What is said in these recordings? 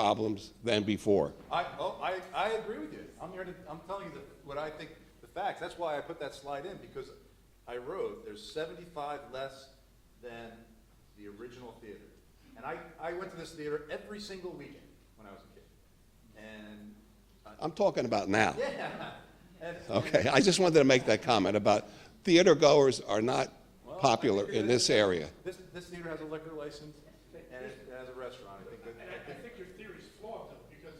problems than before. I, oh, I, I agree with you. I'm here to, I'm telling you the- what I think, the facts. That's why I put that slide in, because I wrote, there's seventy-five less than the original theater. And I, I went to this theater every single weekend when I was a kid. And, I'm talking about now. yeah, and. Okay, I just wanted to make that comment about theater goers are not popular in this area. This, this theater has a liquor license and it has a restaurant. I think that, And I, I think your theory's flawed though, because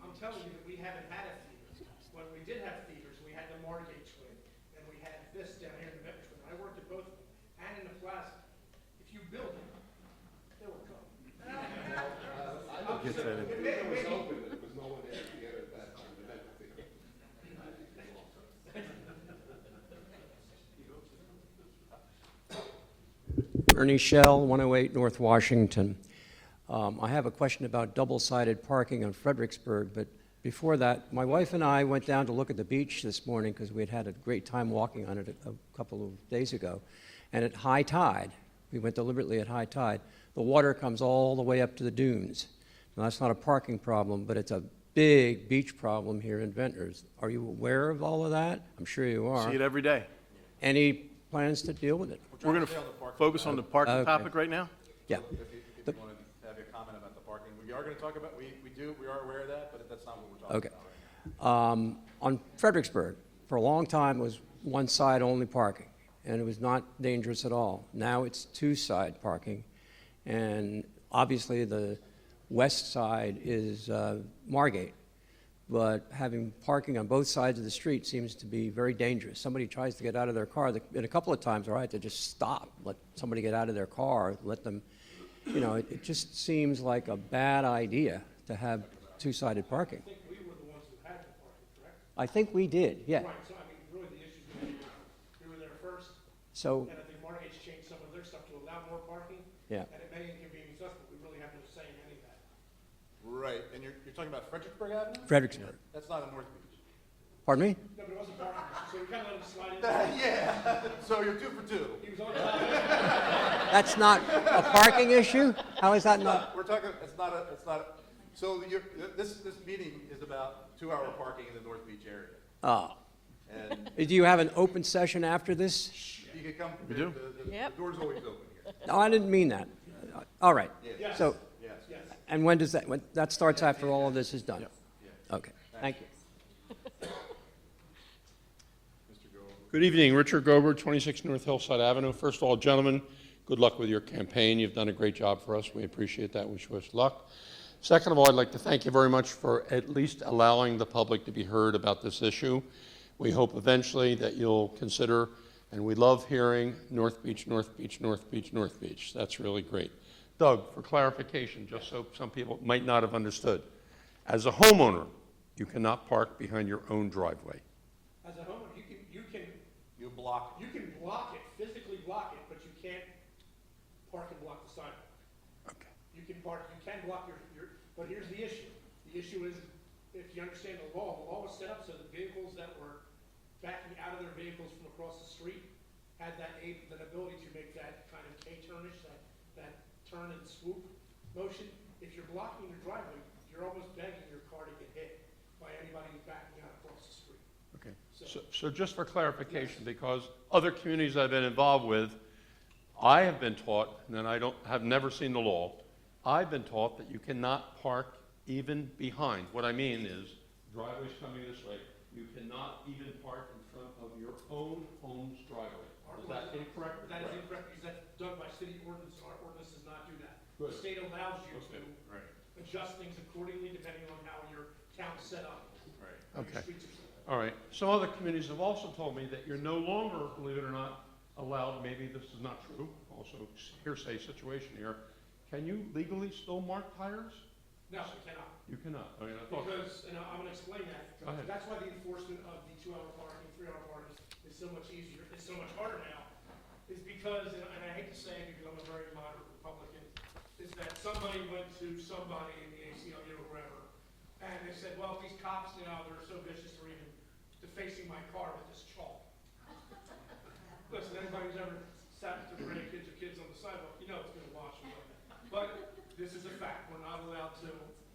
I'm telling you that we haven't had a theater. When we did have theaters, we had the Margate Twin, and we had this down here in the Metro Twin. I worked at both of them, and in the Plaza. If you build them, they will come. It may- it may be- Ernie Shell, 108 North Washington. Um, I have a question about double-sided parking on Fredericksburg, but before that, my wife and I went down to look at the beach this morning because we had had a great time walking on it a a couple of days ago. And at high tide, we went deliberately at high tide, the water comes all the way up to the dunes. Now, that's not a parking problem, but it's a big beach problem here in Ventnors. Are you aware of all of that? I'm sure you See it are. every day. Any plans to deal with it? We're going to focus on the parking Okay. topic right now? Yeah. if you, if you wanna have your comment about the parking, we are gonna talk about, we, we do, we are aware of that, but that's not what we're talking about. Okay. Um, On Fredericksburg, for a long time, it was one-side-only parking, and it was not dangerous at all. Now it's two-side parking, and obviously, the west side is uh, Margate, but having parking on both sides of the street seems to be very dangerous. Somebody tries to get out of their car, the- and a couple of times, all right, to just stop, let somebody get out of their car, let them, you know, it it just seems like a bad idea to have two-sided parking. I think we were the ones who had the party, correct? I think we did, yeah. Right, so I mean, really the issue's gonna be, we were there first, So, and I think Margate's changed some of their stuff to allow more parking. Yeah. And it may inconvenience us, but we really have no say in any of that. Right, and you're, you're talking about Fredericksburg Avenue? Fredericksburg, That's not in North Beach. pardon me? No, but it wasn't parking, so we kinda let him slide in. Yeah, so you're two for two. He was on top. That's not a parking issue? How is that not? We're talking, it's not a, it's not, a so you're, this, this meeting is about two-hour parking in the North Beach area. Oh. And Do you have an open session after this? you can come, the, We do. the- the Yep. door's always open here. No, I didn't mean that. All right. Yes. So, Yes, yes. and when does that, when, that starts after all of this is done? Okay, thank you. Good evening, Richard Gober, 26 North Hillside Avenue. First of all, gentlemen, good luck with your campaign. You've done a great job for us. We appreciate that. Wish you us luck. Second of all, I'd like to thank you very much for at least allowing the public to be heard about this issue. We hope eventually that you'll consider, and we love hearing North Beach, North Beach, North Beach, North Beach. That's really great. Doug, for clarification, just so some people might not have understood, as a homeowner, you cannot park behind your own driveway. As a homeowner, you can, you can, You block you can block it, physically block it, but you can't park and block the sidewalk. Okay. You can park, you can block your, your, but here's the issue. The issue is, if you understand the law, the law was set up so that vehicles that were backing out of their vehicles from across the street had that a, that ability to make that kind of K-turnish, that, that turn and swoop motion. If you're blocking your driveway, you're almost begging your car to get hit by anybody who's backing out across the street. Okay, So- so, so just for clarification, because other communities I've been involved with, I have been taught, and then I don't, have never seen the law, I've been taught that you cannot park even behind. What I mean is, driveway's coming this way, you cannot even park in front of your own home's driveway. Is that incorrect? That is incorrect, because that's done by city ordinance, our ordinance does not do that. The Good. state allows you to Okay, adjust things accordingly depending on how your town's set up. how your Okay. streets are set up. All right, some other communities have also told me that you're no longer, believe it or not, allowed, maybe this is not true, also hearsay situation here, can you legally still mark tires? No, we cannot, You cannot, I mean, I thought, because, and I- I'm gonna explain that. Go ahead. That's why the enforcement of the two-hour parking, three-hour parking is so much easier, is so much harder now, is because, and and I hate to say it because I'm a very moderate Republican, is that somebody went to somebody in the ACLU or wherever, and they said, well, these cops, you know, they're so vicious, they're even defacing my car with this chalk. Listen, anybody who's ever sat at the bridge